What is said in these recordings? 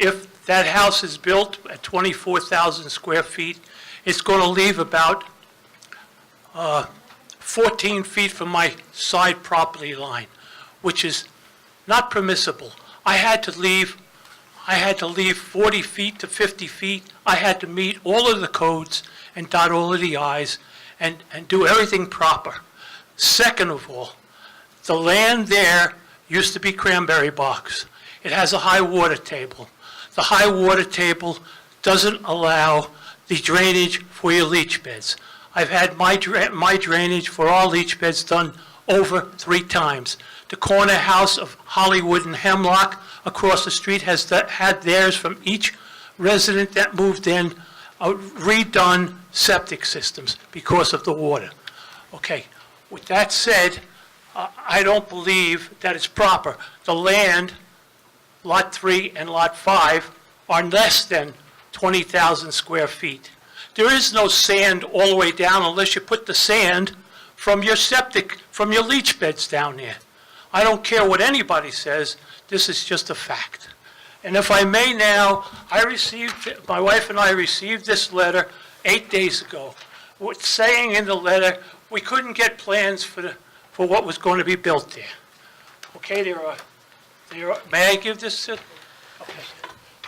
if that house is built at 24,000 square feet, it's going to leave about uh, 14 feet from my side property line, which is not permissible. I had to leave, I had to leave 40 feet to 50 feet. I had to meet all of the codes and dot all of the i's and, and do everything proper. Second of all, the land there used to be cranberry box. It has a high water table. The high water table doesn't allow the drainage for your leach beds. I've had my dra- my drainage for all leach beds done over three times. The corner house of Hollywood and Hemlock across the street has tha- had theirs from each resident that moved in uh, redone septic systems because of the water. Okay, with that said, I I don't believe that it's proper. The land, Lot 3 and Lot 5, are less than 20,000 square feet. There is no sand all the way down unless you put the sand from your septic, from your leach beds down there. I don't care what anybody says, this is just a fact. And if I may now, I received, my wife and I received this letter eight days ago, with- saying in the letter, we couldn't get plans for, the- for what was going to be built there. Okay, there are, there are, may I give this uh, to, okay.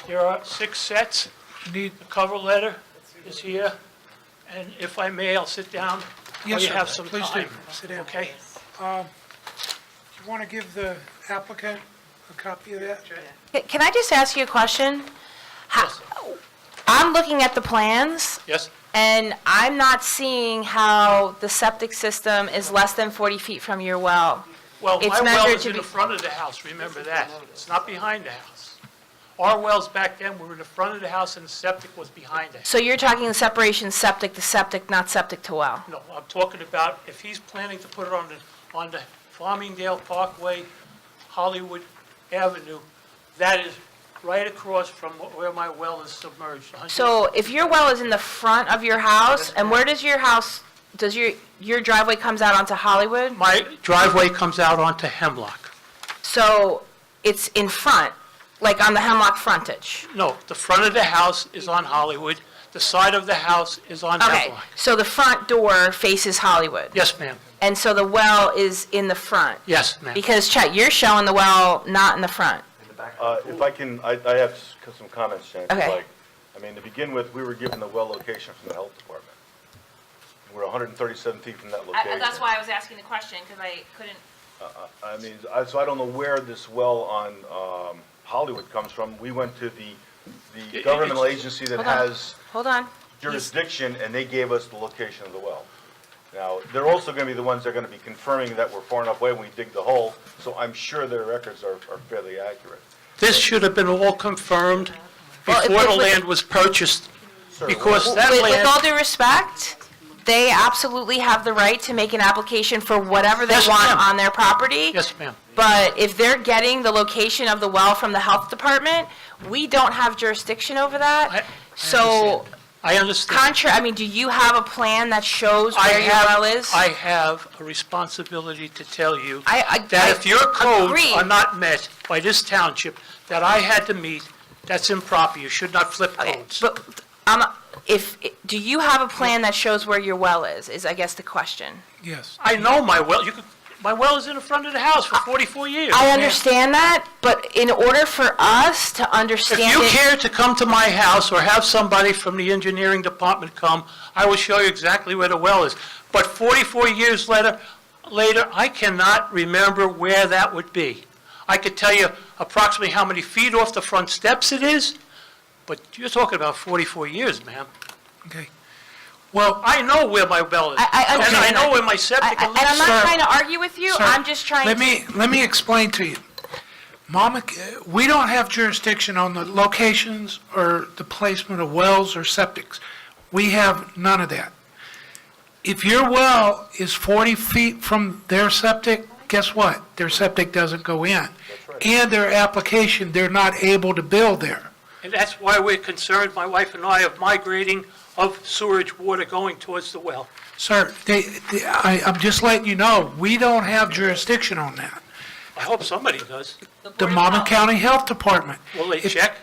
There are six sets. Need. The cover letter is here, and if I may, I'll sit down. while Yes, you sir. have some Please do. time. Sit down. Okay? You want to give the applicant a copy of that? Can I just ask you a question? How- I'm looking at the plans, Yes? and I'm not seeing how the septic system is less than 40 feet from your well. Well, It's my well measured is to in be- the front of the house, remember that. It's not behind the house. Our wells back then were in the front of the house and the septic was behind it. So you're talking the separation septic to septic, not septic to well. No, I'm talking about if he's planning to put it on the, on the Farmingdale Parkway, Hollywood Avenue, that is right across from where my well is submerged. So if your well is in the front of your house, and where does your house, does your, your driveway comes out onto Hollywood? My driveway comes out onto Hemlock. So it's in front, like on the Hemlock frontage? No, the front of the house is on Hollywood, the side of the house is on Okay, Hemlock. so the front door faces Hollywood? Yes, ma'am. And so the well is in the front? Yes, ma'am. Because Chet, you're showing the well not in the front. Uh, If I can, I I have s- some comments, Jen, if you'd Okay. like. I mean, to begin with, we were given the well location from the health department. We're 137 feet from that location. I was asking the question, because I couldn't. I mean, I- so I don't know where this well on um, Hollywood comes from. We went to the the it- governmental agency that Hold on. has Hold on. jurisdiction, and they gave us the location of the well. Now, they're also going to be the ones that are going to be confirming that we're far enough away when we dig the hole, so I'm sure their records are are fairly accurate. This should have been all confirmed Well, it- before the it- land was purchased, Sir, because that With, with all land, due respect, they absolutely have the right to make an application for whatever they Yes, want ma'am. on their property. yes, ma'am. But if they're getting the location of the well from the health department, we don't have jurisdiction over I- I that. So, understand. I understand. contra, I mean, do you have a plan that shows I where your have- well is? I have a responsibility to tell you I- I- that if your codes Agreed. are not met by this township that I had to meet, that's improper. You should not flip codes. But, um, if, do you have a plan that shows where your well is, is I guess the question. Yes. I know my well, you could, my well is in the front of the house for 44 years. I understand that, but in order for us to If understand you it, care to come to my house or have somebody from the engineering department come, I will show you exactly where the well is. But 44 years later, later, I cannot remember where that would be. I could tell you approximately how many feet off the front steps it is, but you're talking about 44 years, ma'am. Okay. Well, I know where my well is. I- I- And I okay. know where my I- septic I- and and I'm leach- Sir, not trying to argue with you, Sir, I'm just trying Let to, me, let me explain to you. Mama, uh, we don't have jurisdiction on the locations or the placement of wells or septics. We have none of that. If your well is 40 feet from their septic, guess what? Their septic doesn't go in. And their application, they're not able to build there. And that's why we're concerned, my wife and I, of migrating of sewerage water going towards the well. Sir, they, they- I, I'm just letting you know, we don't have jurisdiction on that. I hope somebody does. The Monmouth County Health Department. Will they If- check?